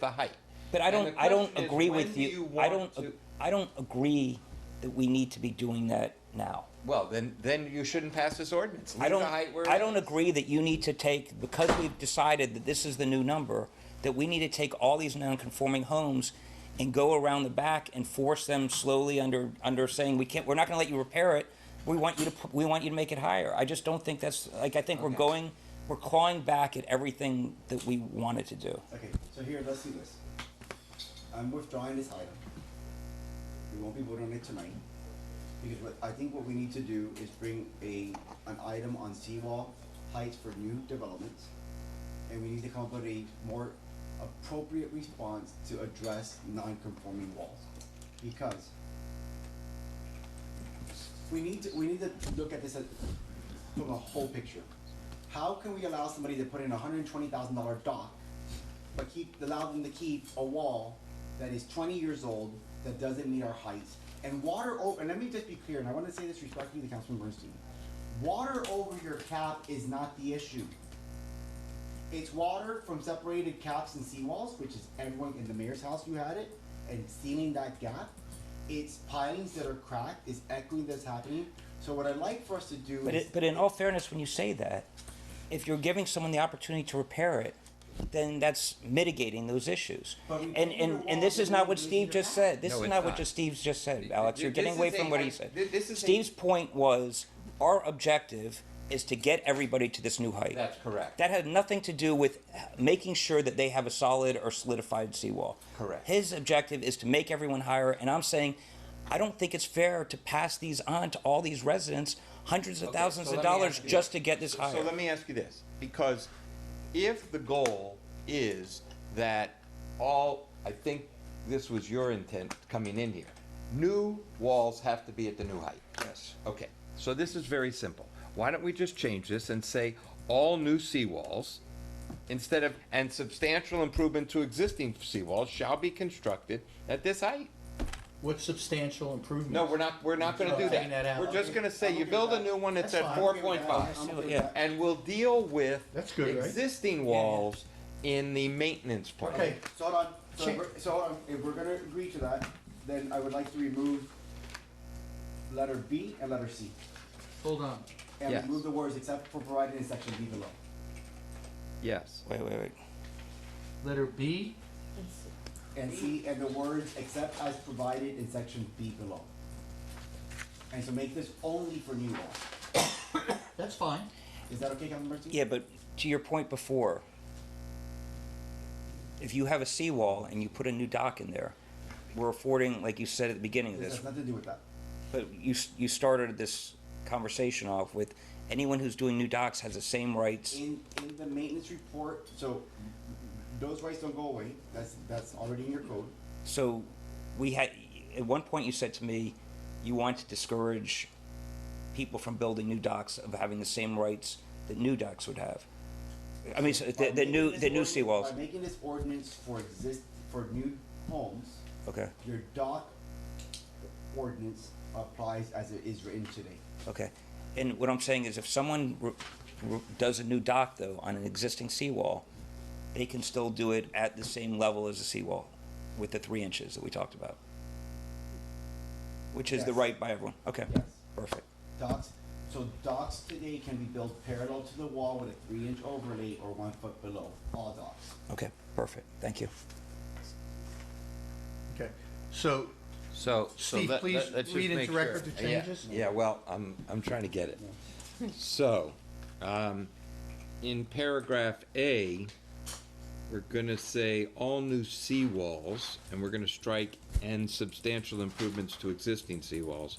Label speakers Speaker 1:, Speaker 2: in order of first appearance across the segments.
Speaker 1: the height.
Speaker 2: But I
Speaker 1: And
Speaker 2: don't,
Speaker 1: the
Speaker 2: I don't
Speaker 1: question is,
Speaker 2: agree
Speaker 1: when
Speaker 2: with
Speaker 1: do
Speaker 2: you, I
Speaker 1: want
Speaker 2: don't,
Speaker 1: to-
Speaker 2: I don't agree that we need to be doing that now.
Speaker 1: Well, then, then you shouldn't pass this ordinance.
Speaker 2: I
Speaker 1: Leave the
Speaker 2: don't,
Speaker 1: height where.
Speaker 2: I
Speaker 1: it
Speaker 2: don't
Speaker 1: is.
Speaker 2: agree that you need to take, because we've decided that this is the new number, that we need to take all these non-conforming homes and go around the back and force them slowly under, under saying, we can't, we're not gonna let you repair it. We want you to, pu- we want you to make it higher. I just don't think that's, like, I think we're
Speaker 1: Okay.
Speaker 2: going, we're clawing back at everything that we wanted to do.
Speaker 3: Okay, so here, let's do this. I'm withdrawing this item. We won't be voting on it tonight. Because what, I think what we need to do is bring a, an item on seawall heights for new developments. And we need to come up with a more appropriate response to address non-conforming walls. Because we need to, we need to look at this as, from a whole picture. How can we allow somebody to put in a hundred and twenty thousand dollar dock, but keep, allow them to keep a wall that is twenty years old, that doesn't meet our heights? And water o- and let me just be clear, and I wanna say this respectfully to Councilman Bernstein. Water over your cap is not the issue. It's water from separated caps and seawalls, which is everyone in the mayor's house who had it, and sealing that gap. It's pilings that are cracked, it's echoing that's happening. So what I'd like for us to do
Speaker 2: But,
Speaker 3: is.
Speaker 2: it, but in all fairness, when you say that, if you're giving someone the opportunity to repair it, then that's mitigating those issues.
Speaker 3: But we
Speaker 2: And,
Speaker 3: didn't
Speaker 2: and,
Speaker 3: do
Speaker 2: and
Speaker 3: the
Speaker 2: this is
Speaker 3: wall,
Speaker 2: not
Speaker 3: we
Speaker 2: what
Speaker 3: didn't
Speaker 2: Steve
Speaker 3: do
Speaker 2: just
Speaker 3: that.
Speaker 2: said. This
Speaker 1: No,
Speaker 2: is
Speaker 1: it's
Speaker 2: not what
Speaker 1: not.
Speaker 2: just Steve's just said,
Speaker 1: Th-
Speaker 2: Alex.
Speaker 1: th-
Speaker 2: You're
Speaker 1: this
Speaker 2: getting away
Speaker 1: is
Speaker 2: from
Speaker 1: a-
Speaker 2: what
Speaker 1: I-
Speaker 2: he said.
Speaker 1: th- this is a-
Speaker 2: Steve's point was, our objective is to get everybody to this new height.
Speaker 1: That's correct.
Speaker 2: That had nothing to do with making sure that they have a solid or solidified seawall.
Speaker 1: Correct.
Speaker 2: His objective is to make everyone higher, and I'm saying, I don't think it's fair to pass these on to all these residents, hundreds of
Speaker 1: Okay,
Speaker 2: thousands
Speaker 1: so
Speaker 2: of
Speaker 1: let me ask
Speaker 2: dollars
Speaker 1: you
Speaker 2: just to get this higher.
Speaker 1: So let me ask you this, because if the goal is that all, I think this was your intent coming in here, new walls have to be at the new height. Yes. Okay, so this is very simple. Why don't we just change this and say all new seawalls instead of, and substantial improvement to existing seawalls shall be constructed at this height?
Speaker 4: What substantial improvement?
Speaker 1: No, we're not, we're not gonna do
Speaker 4: Taking that
Speaker 1: that.
Speaker 4: out.
Speaker 1: We're just gonna say you build a new one, it's
Speaker 4: That's
Speaker 1: at
Speaker 4: fine.
Speaker 1: four
Speaker 4: I'm
Speaker 1: point five.
Speaker 3: I'm okay with
Speaker 2: Yeah.
Speaker 3: that.
Speaker 1: And we'll deal with
Speaker 4: That's good, right?
Speaker 1: existing walls in the maintenance plan.
Speaker 4: Okay.
Speaker 3: So hold on, so,
Speaker 4: Sure.
Speaker 3: if we're- so hold on, if we're gonna agree to that, then I would like to remove letter B and letter C.
Speaker 4: Hold on.
Speaker 3: And
Speaker 1: Yes.
Speaker 3: remove the words except for provided in section B below.
Speaker 1: Yes.
Speaker 2: Wait, wait, wait.
Speaker 4: Letter B,
Speaker 3: And C, and the words except as provided in section B below. And so make this only for new law.
Speaker 4: that's fine.
Speaker 3: Is that okay, Councilman Bernstein?
Speaker 2: Yeah, but to your point before, if you have a seawall and you put a new dock in there, we're affording, like you said at the beginning of
Speaker 3: This
Speaker 2: this,
Speaker 3: has nothing to do with that.
Speaker 2: but you, s- you started this conversation off with anyone who's doing new docks has the same rights.
Speaker 3: In, in the maintenance report, so those rights don't go away, that's, that's already in your code.
Speaker 2: So we had, at one point you said to me, you want to discourage people from building new docks of having the same rights that new docks would have. I mean, so the,
Speaker 3: By
Speaker 2: the
Speaker 3: making
Speaker 2: new,
Speaker 3: this
Speaker 2: the new
Speaker 3: ordinance-
Speaker 2: seawalls,
Speaker 3: By making this ordinance for exist, for new homes,
Speaker 2: okay.
Speaker 3: your dock ordinance applies as it is written today.
Speaker 2: Okay, and what I'm saying is if someone re- re- does a new dock though on an existing seawall, they can still do it at the same level as the seawall with the three inches that we talked about. Which is the
Speaker 3: Yes.
Speaker 2: right by everyone, okay,
Speaker 3: Yes.
Speaker 2: perfect,
Speaker 3: Docks, so docks today can be built parallel to the wall with a three-inch overlay or one foot below, all docks.
Speaker 2: okay, perfect, thank you.
Speaker 4: Okay. So,
Speaker 1: So, so
Speaker 4: Steve,
Speaker 1: let,
Speaker 4: please
Speaker 1: let- let's just
Speaker 4: read
Speaker 1: make
Speaker 4: into
Speaker 1: sure.
Speaker 4: record the
Speaker 1: Yeah,
Speaker 4: changes.
Speaker 1: Yeah, well, I'm, I'm trying to get it. So, um, in paragraph A, we're gonna say all new seawalls, and we're gonna strike and substantial improvements to existing seawalls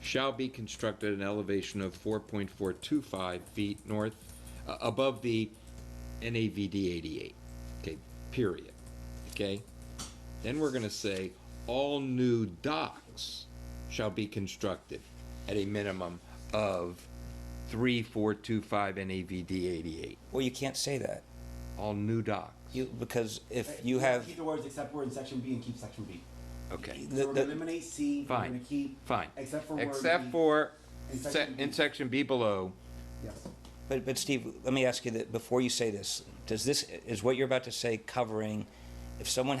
Speaker 1: shall be constructed at an elevation of four point four two five feet north, uh, above the NAVD eighty-eight. Okay, period. Okay? Then we're gonna say, all new docks shall be constructed at a minimum of three, four, two, five NAVD eighty-eight.
Speaker 2: Well, you can't say that,
Speaker 1: All new docks.
Speaker 2: you, because if you have,
Speaker 3: Keep the words except for in section B and keep section B.
Speaker 1: Okay,
Speaker 2: The-
Speaker 3: So we're gonna
Speaker 2: the-
Speaker 3: eliminate C, we're
Speaker 1: Fine.
Speaker 3: gonna keep.
Speaker 1: fine.
Speaker 3: Except for word
Speaker 1: Except
Speaker 3: B.
Speaker 1: for,
Speaker 3: In
Speaker 1: se-
Speaker 3: section B.
Speaker 1: in section B below,
Speaker 3: Yes.
Speaker 2: but, but Steve, let me ask you that, before you say this, does this, is what you're about to say covering If someone